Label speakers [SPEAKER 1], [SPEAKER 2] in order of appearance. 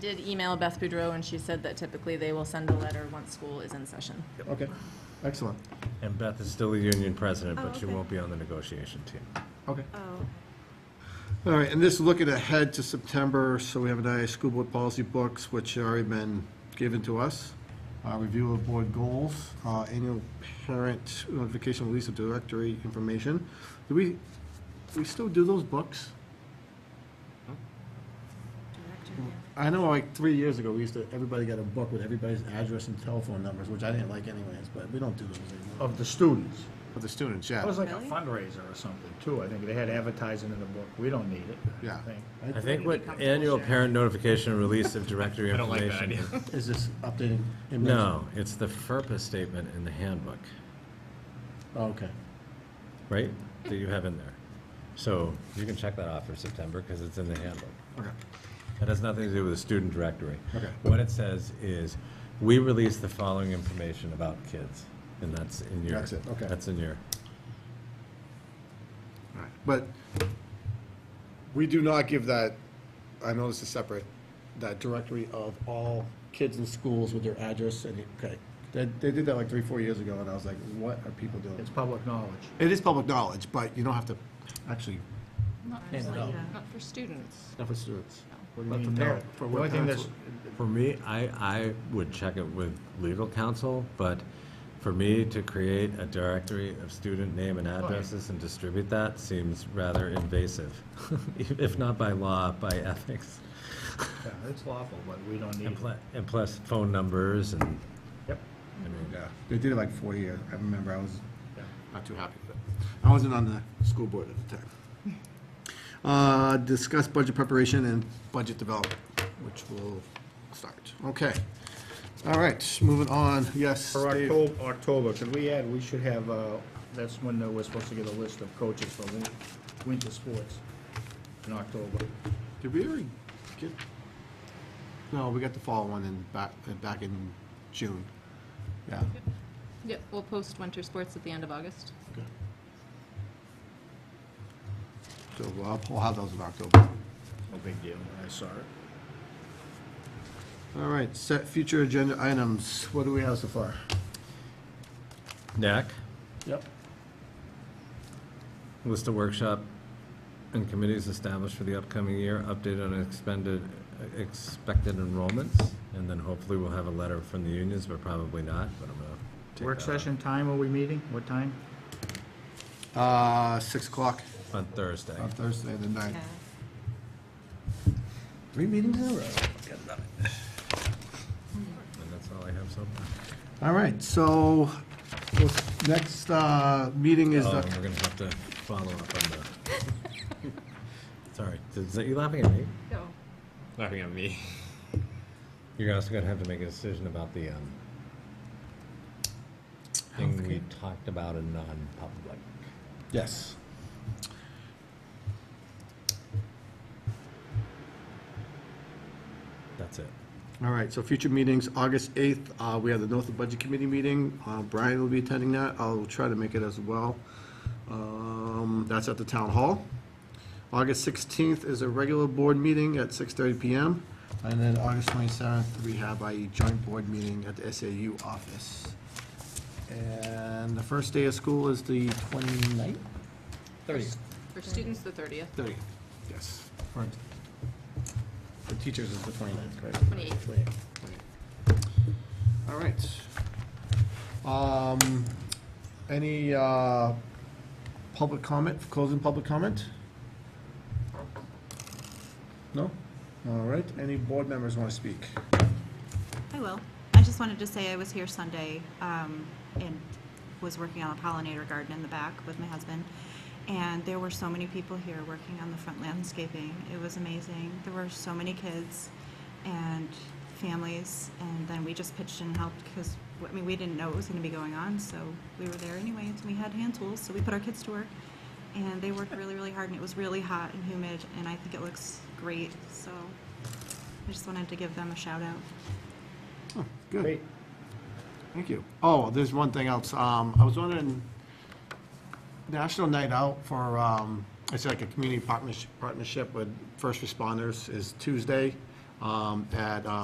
[SPEAKER 1] Did email Beth Boudreau, and she said that typically they will send a letter once school is in session.
[SPEAKER 2] Okay, excellent.
[SPEAKER 3] And Beth is still the union president, but
[SPEAKER 4] Oh,
[SPEAKER 3] she
[SPEAKER 4] okay.
[SPEAKER 3] won't be on the negotiation team.
[SPEAKER 2] Okay.
[SPEAKER 4] Oh,
[SPEAKER 2] All right, and this is looking ahead to September, so we have an IA school board policy books, which have already been given to us. Uh, Review of board goals, uh, annual parent notification release of directory information. Do we, we still do those books?
[SPEAKER 4] director.
[SPEAKER 2] I know like three years ago, we used to, everybody got a book with everybody's address and telephone numbers, which I didn't like anyways, but we don't do those anymore.
[SPEAKER 5] Of the students.
[SPEAKER 2] For the students,
[SPEAKER 5] It
[SPEAKER 2] yeah.
[SPEAKER 5] was like a
[SPEAKER 1] Really?
[SPEAKER 5] fundraiser or something, too. I think they had advertising in the book. We don't need it. I
[SPEAKER 2] Yeah.
[SPEAKER 5] think.
[SPEAKER 3] I think what annual parent notification release of directory
[SPEAKER 6] don't like that
[SPEAKER 3] information.
[SPEAKER 2] Is this updating?
[SPEAKER 3] No, it's the FERPA statement in the handbook,
[SPEAKER 2] Oh, okay.
[SPEAKER 3] right, that you have in there. So you can check that off for September, because it's in the handbook.
[SPEAKER 2] Okay.
[SPEAKER 3] That has nothing to do with the student directory.
[SPEAKER 2] Okay.
[SPEAKER 3] What it says is, we release the following information about kids, and that's in your.
[SPEAKER 2] That's it, okay.
[SPEAKER 3] That's in your,
[SPEAKER 2] Alright, But we do not give that, I know this is separate, that directory of all kids in schools with their address and, okay. They, they did that like three, four years ago, and I was like, what are people doing?
[SPEAKER 5] It's public knowledge.
[SPEAKER 2] It is public knowledge, but you don't have to actually,
[SPEAKER 7] Not
[SPEAKER 2] Hand it
[SPEAKER 7] for,
[SPEAKER 2] out.
[SPEAKER 1] uh,
[SPEAKER 7] not for students.
[SPEAKER 2] not for students.
[SPEAKER 5] What do you
[SPEAKER 2] But for
[SPEAKER 5] mean, no?
[SPEAKER 2] parent- for
[SPEAKER 5] The
[SPEAKER 2] what
[SPEAKER 5] only thing
[SPEAKER 2] parents
[SPEAKER 5] that's,
[SPEAKER 3] for me, I, I would check it with legal counsel, but for me to create a directory of student name and addresses and distribute that seems rather invasive, if not by law, by ethics.
[SPEAKER 5] yeah, it's lawful, but we don't need
[SPEAKER 3] And
[SPEAKER 5] it.
[SPEAKER 3] pla- and plus phone numbers and,
[SPEAKER 5] Yep.
[SPEAKER 3] I mean,
[SPEAKER 2] Yeah, they did it like four years. I remember I was
[SPEAKER 5] Yeah.
[SPEAKER 2] not too happy with it. I wasn't on the school board at the time. Uh, discuss budget preparation and budget development, which will start. Okay. All right, moving on. Yes,
[SPEAKER 5] For
[SPEAKER 2] Dave.
[SPEAKER 5] October, October, could we add, we should have, uh, that's when uh, we're supposed to get a list of coaches for win- winter sports in October.
[SPEAKER 2] Did we already get? No, we got the fall one in back, uh, back in June. Yeah.
[SPEAKER 1] Yep, we'll post winter sports at the end of August.
[SPEAKER 2] Okay. So I'll, I'll have those in October.
[SPEAKER 5] No big deal. I saw it.
[SPEAKER 2] All right, set future agenda items. What do we have so far?
[SPEAKER 3] NAC,
[SPEAKER 2] Yep.
[SPEAKER 3] list of workshop and committees established for the upcoming year, update on expended, expected enrollments, and then hopefully we'll have a letter from the unions, but probably not, but I'm gonna take
[SPEAKER 5] Work
[SPEAKER 3] that up
[SPEAKER 5] session time, are we meeting? What time?
[SPEAKER 2] Uh, six o'clock
[SPEAKER 3] On Thursday.
[SPEAKER 2] on Thursday, the ninth.
[SPEAKER 3] Three meetings in a row. And that's all I have so far.
[SPEAKER 2] All right, so what's- next, uh, meeting is,
[SPEAKER 3] Oh,
[SPEAKER 2] uh,
[SPEAKER 3] and we're gonna have to follow up on the. Sorry, is that you laughing at me?
[SPEAKER 1] Go.
[SPEAKER 6] Laughing at me.
[SPEAKER 3] You're also gonna have to make a decision about the, um, thing we talked about in non-public.
[SPEAKER 2] yes.
[SPEAKER 3] That's it.
[SPEAKER 2] All right, so future meetings, August 8th, uh, we have the North Budget Committee meeting. Uh, Brian will be attending that. I'll try to make it as well. Um, That's at the Town Hall. August 16th is a regular board meeting at 6:30 PM. And then August 27th, we have a joint board meeting at the SAU office. And the first day of school is the 29th? 30th.
[SPEAKER 1] For students, the 30th,
[SPEAKER 2] 30th, yes. For for teachers is the 29th, correct?
[SPEAKER 1] 28th.
[SPEAKER 2] All right. Um, any, uh, public comment, closing public comment? No? All right, any board members want to speak?
[SPEAKER 4] I will. I just wanted to say I was here Sunday um, and was working on a pollinator garden in the back with my husband. And there were so many people here working on the front landscaping. It was amazing. There were so many kids and families. And then we just pitched in and helped because, I mean, we didn't know what was going to be going on. So we were there anyways. We had hand tools, so we put our kids to work. And they worked really, really hard. And it was really hot and humid. And I think it looks great. So I just wanted to give them a shout out.
[SPEAKER 2] Good,
[SPEAKER 5] Great.
[SPEAKER 2] thank you. Oh, there's one thing else. Um, I was wondering, National Night Out for, um, it's like a community partnership, partnership with first responders is Tuesday, um, at, uh,